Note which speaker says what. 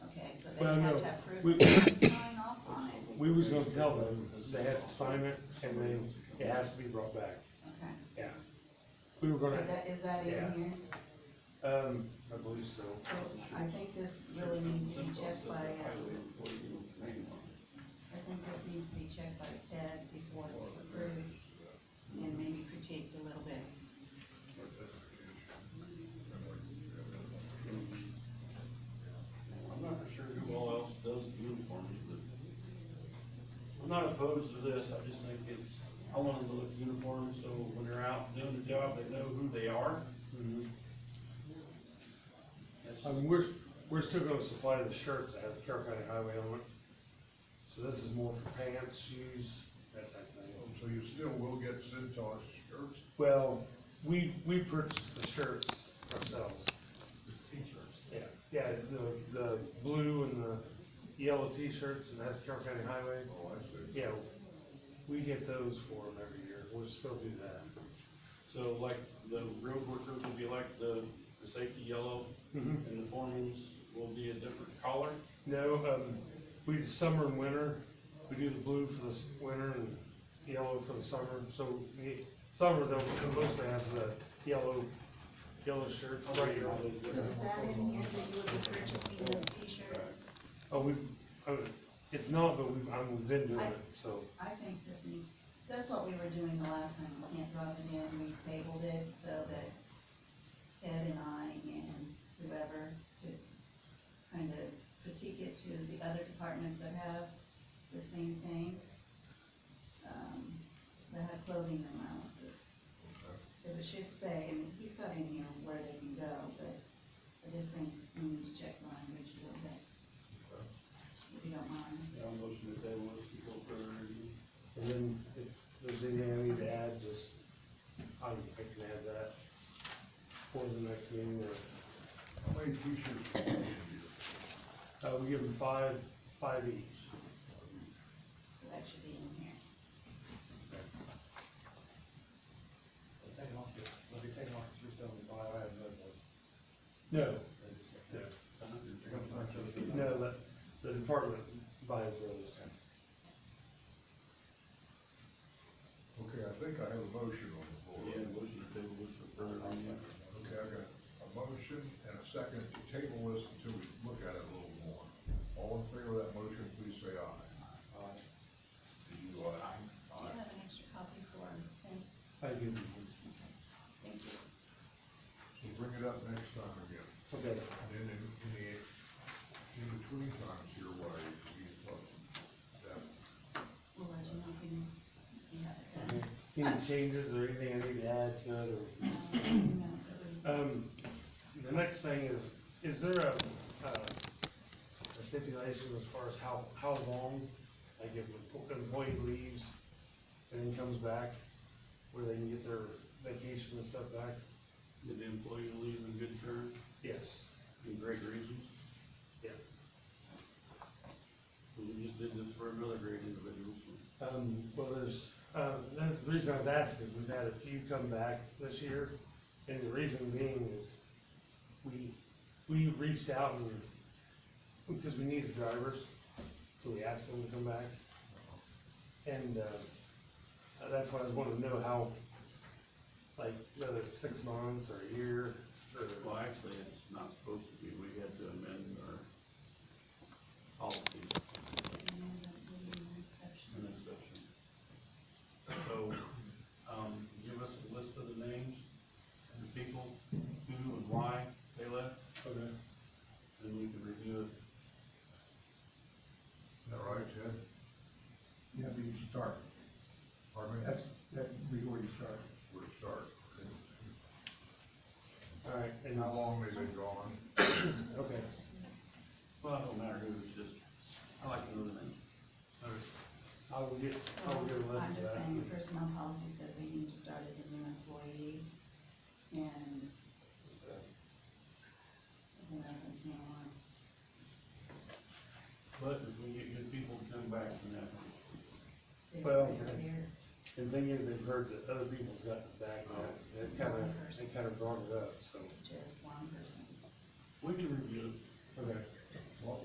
Speaker 1: they
Speaker 2: Well,
Speaker 1: had
Speaker 2: no.
Speaker 1: to approve
Speaker 2: We-
Speaker 1: it and sign off on it.
Speaker 2: We was gonna tell them, they had to sign it, and then it has to be brought back,
Speaker 1: Okay.
Speaker 2: yeah. We were
Speaker 1: Is
Speaker 2: gonna,
Speaker 1: that, is that
Speaker 2: Yeah.
Speaker 1: in here?
Speaker 2: um,
Speaker 3: I believe so.
Speaker 1: So I think this really needs to be checked by, um, I think this needs to be checked by Ted before it's approved, and maybe critiqued a little bit.
Speaker 3: I'm not for sure who
Speaker 4: All
Speaker 3: all,
Speaker 4: else does uniforms, but
Speaker 3: I'm not opposed to this, I just think it's, I want them to look uniform, so when they're out doing the job, they know who they are.
Speaker 2: mhm.
Speaker 3: That's
Speaker 2: I
Speaker 3: just-
Speaker 2: mean, we're, we're still gonna supply the shirts as Carroll County Highway on it. So this is more for pants, shoes, that type of thing.
Speaker 5: Oh, So you still will get Centos shirts,
Speaker 2: Well, we, we purchased the shirts ourselves. Yeah, yeah, the, the blue and the yellow t-shirts, and that's Carroll County Highway.
Speaker 5: oh, I see.
Speaker 2: Yeah, we get those for them every year, we'll still do that.
Speaker 4: So like the road workers will be like the, the safety yellow
Speaker 2: Mm-hmm.
Speaker 4: and the foremans will be a different color.
Speaker 2: No, um, we do summer and winter, we do the blue for the s- winter and yellow for the summer, so, we- summer, they'll they'll mostly have the yellow, yellow shirt. right here.
Speaker 1: So is that in here that you would be purchasing those t-shirts?
Speaker 2: Oh, we, oh, it's not, but we've, I'm, we've been doing it, so,
Speaker 1: I think this needs, that's what we were doing the last time, we can't drop it in, we tabled it so that Ted and I and whoever could kind of critique it to the other departments that have the same thing, um, that have clothing allowances. Cause it should say, and he's got in here where they can go, but I just think we need to check language a little bit. If you don't mind.
Speaker 4: Yeah, I'll motion that they want to go further review.
Speaker 2: and then if there's anything I need to add, just, I, I can add that for the next meeting, or,
Speaker 5: How many t-shirts do you have here?
Speaker 2: uh, we give them five, five each.
Speaker 1: So that should be in here.
Speaker 6: Take off your, let me take off your seventy-five, I have no voice.
Speaker 2: No,
Speaker 6: They just-
Speaker 2: Yeah.
Speaker 6: You're gonna start those.
Speaker 2: no, the, the department buys those.
Speaker 5: Okay, I think I have a motion on the floor.
Speaker 4: Yeah, motion that they will look for further review.
Speaker 5: Okay, I got a motion and a second to table this until we look at it a little more. All in favor of that motion, please say aye. Aye. Did you, uh, aye?
Speaker 1: Do you have an extra copy for Ted?
Speaker 2: I do,
Speaker 1: Thank you.
Speaker 5: So bring it up next time again.
Speaker 2: okay,
Speaker 5: And then in, in the, in between times here, why you talk, that,
Speaker 1: We'll let you know if you, if you have it
Speaker 2: okay. Any changes or anything I need to add to it, or?
Speaker 1: done. No, it wouldn't.
Speaker 2: Um, the next thing is, is there a, uh, a stipulation as far as how, how long, like if an employee leaves and then comes back, where they can get their vacation and stuff back?
Speaker 4: Did the employee leave in good terms
Speaker 2: Yes,
Speaker 4: and great reasons?
Speaker 2: Yeah.
Speaker 4: We just did this for another great individual, so.
Speaker 2: um, well, there's, uh, that's the reason I was asking, we've had a few come back this year, and the reason being is we, we reached out and, because we needed drivers, so we asked them to come back. And, uh, uh, that's why I was wanting to know how, like, whether it's six months or a year, or,
Speaker 4: Well, actually, it's not supposed to be, we had to amend our policy
Speaker 1: You know, that would be an exception.
Speaker 4: and exception. So, um, give us a list of the names, and the people, who and why they left,
Speaker 2: okay,
Speaker 4: and we can review it.
Speaker 5: that right, Ted?
Speaker 7: Yeah, but you start,
Speaker 5: Pardon me?
Speaker 7: that's, that'd be where you start.
Speaker 5: Where to start.
Speaker 2: all right,
Speaker 5: And
Speaker 2: and,
Speaker 5: how long they've been gone?
Speaker 2: okay.
Speaker 4: Well, it don't matter who, it's just, I like to know the names.
Speaker 2: all right. I will get, I will get a
Speaker 1: I'm
Speaker 2: list of
Speaker 1: just
Speaker 2: that.
Speaker 1: saying, the personnel policy says that you need to start as a new employee, and, you know, you know,
Speaker 4: But if we get good people to come back from that,
Speaker 1: they-
Speaker 2: Well,
Speaker 1: they're here.
Speaker 2: The thing is, they've heard that other people's gotten back, and it kinda, it kinda brought it up, so.
Speaker 1: just one person.
Speaker 4: we can review it.
Speaker 2: Okay.
Speaker 5: What,